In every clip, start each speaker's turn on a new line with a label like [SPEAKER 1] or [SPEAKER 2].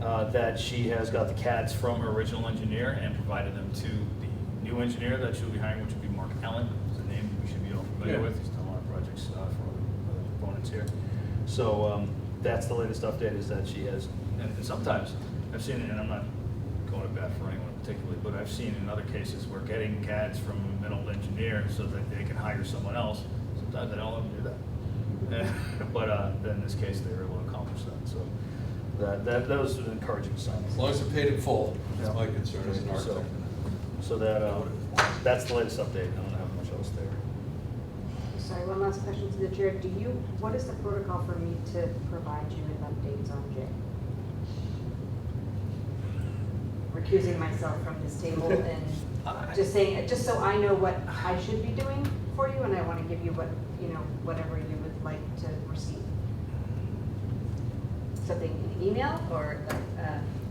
[SPEAKER 1] uh, that she has got the CADs from her original engineer and provided them to the new engineer that she'll be hiring, which will be Mark Allen, is a name we should be all familiar
[SPEAKER 2] Yeah.
[SPEAKER 1] with. He's done a lot of projects uh, for other other opponents here. So um, that's the latest update is that she has, and and sometimes, I've seen it, and I'm not going to bat for anyone particularly, but I've seen in other cases where getting CADs from a middle engineer so that they can hire someone else, sometimes they don't let them do that. But uh, in this case, they were able to accomplish that, so that, that, that was an encouraging sign.
[SPEAKER 2] As long as they're paid in full, that's my
[SPEAKER 1] Yeah.
[SPEAKER 2] concern as an
[SPEAKER 1] So-
[SPEAKER 2] architect.
[SPEAKER 1] So that, uh, that's the latest update, I don't have much else there.
[SPEAKER 3] Sorry, one last question to the chair. Do you, what is the protocol for me to provide you with updates on Jay? Recusing myself from this table and just saying, just so I know what I should be doing for you, and I want to give you what, you know, whatever you would like to receive. Something in email or, uh,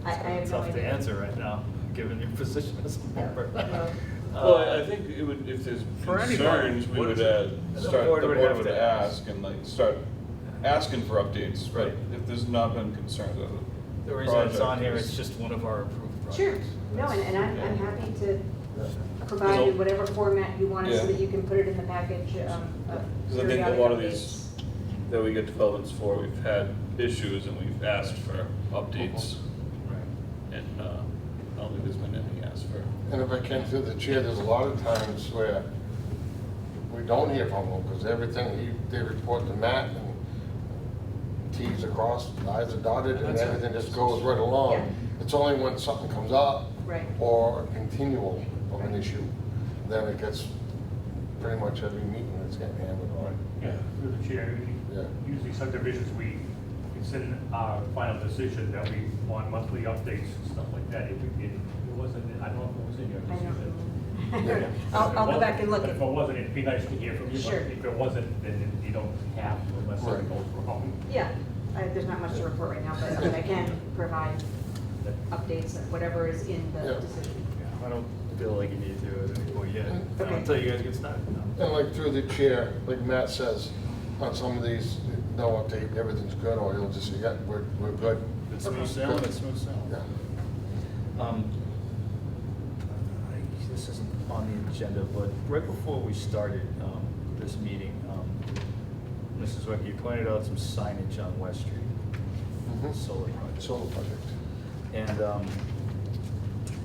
[SPEAKER 3] I, I have no idea.
[SPEAKER 1] Tough to answer right now, given your position as a member.
[SPEAKER 3] Well-
[SPEAKER 4] Well,
[SPEAKER 1] Uh,
[SPEAKER 4] I- I think it would, if there's
[SPEAKER 1] For anybody,
[SPEAKER 4] concerns, we
[SPEAKER 1] what
[SPEAKER 4] would
[SPEAKER 1] is
[SPEAKER 4] uh,
[SPEAKER 1] it? The
[SPEAKER 4] start,
[SPEAKER 1] board
[SPEAKER 4] the
[SPEAKER 1] would
[SPEAKER 4] board
[SPEAKER 1] have
[SPEAKER 4] would
[SPEAKER 1] to ask.
[SPEAKER 4] ask and like, start asking for updates,
[SPEAKER 1] Right.
[SPEAKER 4] but if there's not been concerns of it.
[SPEAKER 1] The reason it's on here, it's just one of our approved projects.
[SPEAKER 3] Sure, no, and, and I'm, I'm happy to provide in whatever format you want, it so
[SPEAKER 4] Yeah.
[SPEAKER 3] that you can put it in the package, um, of
[SPEAKER 4] Because I think a
[SPEAKER 3] periodic
[SPEAKER 4] lot of
[SPEAKER 3] updates.
[SPEAKER 4] these that we get developments for, we've had issues and we've asked for updates.
[SPEAKER 1] Right.
[SPEAKER 4] And uh, I don't think there's been anything asked for.
[SPEAKER 5] And if I can through the chair, there's a lot of times where we don't hear from them because everything, he- they report to Matt and Ts are crossed, Is are dotted, and
[SPEAKER 2] That's right.
[SPEAKER 5] everything just goes right along.
[SPEAKER 3] Yeah.
[SPEAKER 5] It's only when something comes up
[SPEAKER 3] Right.
[SPEAKER 5] or a continual of an issue, then it gets pretty much every meeting that's getting handled on.
[SPEAKER 6] Yeah, through the chair,
[SPEAKER 5] Yeah.
[SPEAKER 6] usually subdivisions, we consider our final decision that we want monthly updates and stuff like that. If we did, it wasn't, I don't know if it was in your
[SPEAKER 3] I
[SPEAKER 6] decision.
[SPEAKER 3] know. I'll, I'll go back and look
[SPEAKER 6] If
[SPEAKER 3] at,
[SPEAKER 6] it wasn't, it'd be nice to hear from you, but
[SPEAKER 3] Sure.
[SPEAKER 6] if it wasn't, then you don't have to unless
[SPEAKER 5] Right.
[SPEAKER 6] something goes wrong.
[SPEAKER 3] yeah, I, there's not much to report right now, but, but I can provide updates of whatever is in the
[SPEAKER 5] Yeah.
[SPEAKER 3] decision.
[SPEAKER 1] Yeah, I don't feel like you need to at any point yet,
[SPEAKER 3] Mm-hmm. Okay.
[SPEAKER 1] until you guys get started. no.
[SPEAKER 5] And like through the chair, like Matt says, on some of these, no update, everything's good, or he'll just say, yeah, we're, we're good.
[SPEAKER 1] It's smooth sailing, it's smooth
[SPEAKER 5] Yeah.
[SPEAKER 1] sailing. Um, I- This isn't on the agenda, but right before we started um, this meeting, um, Mrs. Zwick, you pointed out some signage on West Street,
[SPEAKER 5] Mhm.
[SPEAKER 1] solar project.
[SPEAKER 5] Solar project.
[SPEAKER 1] And um,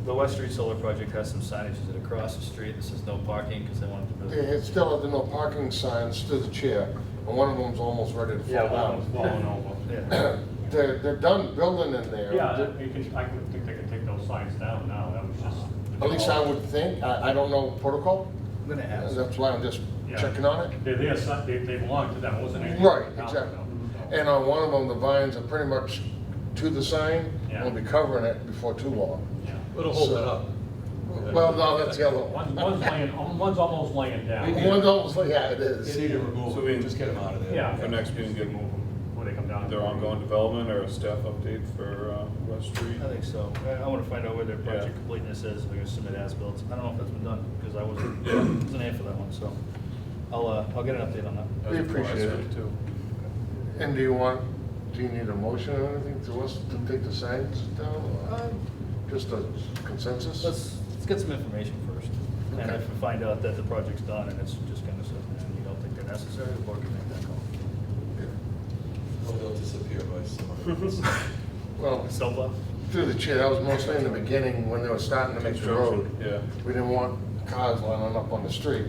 [SPEAKER 1] the West Street Solar Project has some signage that across the street that says no parking because they wanted to
[SPEAKER 5] It-
[SPEAKER 1] build.
[SPEAKER 5] It's still at the no parking signs through the chair, and one of them's almost ready to fall
[SPEAKER 6] Falling
[SPEAKER 5] down.
[SPEAKER 6] over.
[SPEAKER 1] Yeah.
[SPEAKER 5] They're, they're done building in there.
[SPEAKER 6] Yeah, you can, I would think they could take those signs down now, that was just.
[SPEAKER 5] At least I would think, I, I don't know protocol,
[SPEAKER 1] I'm gonna
[SPEAKER 5] and
[SPEAKER 1] ask.
[SPEAKER 5] that's why I'm just
[SPEAKER 6] Yeah.
[SPEAKER 5] checking on it.
[SPEAKER 6] They're there, so they, they belong to them, it wasn't anything.
[SPEAKER 5] Right,
[SPEAKER 6] about
[SPEAKER 5] exactly.
[SPEAKER 6] them, so.
[SPEAKER 5] And uh, on one of them, the vines are pretty much to the sign, we'll be covering it before too long.
[SPEAKER 6] Yeah.
[SPEAKER 2] It'll hold it up.
[SPEAKER 5] Well, no, that's yellow.
[SPEAKER 6] One's, one's laying, um, one's almost laying down.
[SPEAKER 2] Yeah.
[SPEAKER 5] One of those, yeah, it
[SPEAKER 2] They
[SPEAKER 5] is.
[SPEAKER 2] need to
[SPEAKER 4] So
[SPEAKER 2] remove
[SPEAKER 4] we-
[SPEAKER 2] it, just get them out of there.
[SPEAKER 6] Yeah.
[SPEAKER 4] For next meeting,
[SPEAKER 6] Just
[SPEAKER 4] give
[SPEAKER 6] remove
[SPEAKER 4] them
[SPEAKER 6] them before they come down.
[SPEAKER 4] their ongoing development or a staff update for uh, West Street.
[SPEAKER 1] I think so. I- I want to find out where their
[SPEAKER 4] Yeah.
[SPEAKER 1] project completeness is, if they're gonna submit as-built. I don't know if that's been done, because I wasn't,
[SPEAKER 4] Yeah.
[SPEAKER 1] wasn't in for that one, so I'll, uh, I'll get an update on that.
[SPEAKER 5] We appreciate it.
[SPEAKER 1] Too.
[SPEAKER 5] And do you want, do you need a motion or anything to us to take the signs down? or Just a consensus?
[SPEAKER 1] Let's, let's get some information first, and
[SPEAKER 5] Okay.
[SPEAKER 1] if we find out that the project's done and it's just kind of something, and you don't think they're necessary, the board can make that call.
[SPEAKER 2] Or They'll disappear by summer.
[SPEAKER 5] Well,
[SPEAKER 1] Snowplow?
[SPEAKER 5] through the chair, that was mostly in the beginning when they were starting to make the road.
[SPEAKER 4] Yeah.
[SPEAKER 5] We didn't want cars lining up on the street,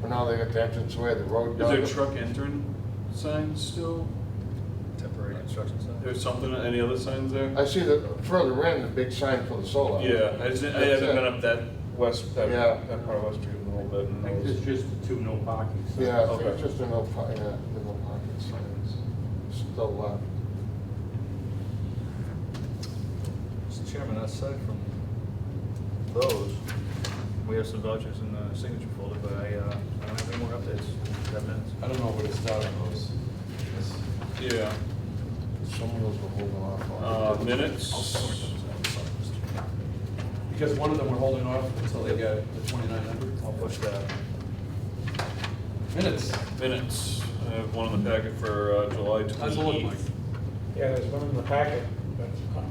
[SPEAKER 5] but now they got the entrance where the road.
[SPEAKER 4] Is there
[SPEAKER 5] dug-
[SPEAKER 4] truck entering signs still?
[SPEAKER 1] Temporary construction site.
[SPEAKER 4] There's something, any other signs there?
[SPEAKER 5] I see the further in, the big sign for the solar.
[SPEAKER 4] Yeah, I just, I haven't been up that west, that,
[SPEAKER 5] Yeah.
[SPEAKER 4] that part of West Street in a little bit.
[SPEAKER 6] I
[SPEAKER 4] and I
[SPEAKER 6] think
[SPEAKER 4] was-
[SPEAKER 6] there's just the two no parking signs.
[SPEAKER 5] Yeah, I think
[SPEAKER 4] Okay.
[SPEAKER 5] it's just in the, yeah, the no parking signs, still uh, left.
[SPEAKER 1] Mr. Chairman, aside from those, we have some vouchers in the signature folder, but I, uh, I don't have any more updates, that minutes.
[SPEAKER 2] I don't know where to start on those. Yes.
[SPEAKER 4] Yeah,
[SPEAKER 5] Some of those were holding off
[SPEAKER 4] uh,
[SPEAKER 5] on.
[SPEAKER 4] minutes.
[SPEAKER 1] I'll sort those out, sorry, Mr. Chairman.
[SPEAKER 2] Because one of them we're holding off until they get the twenty-nine
[SPEAKER 1] I'll
[SPEAKER 2] hundred
[SPEAKER 1] push that.
[SPEAKER 2] minutes.
[SPEAKER 4] Minutes, I have one in the packet for uh, July
[SPEAKER 2] How's it look, Mike?
[SPEAKER 4] twenty-eighth.
[SPEAKER 7] Yeah, there's one in the packet.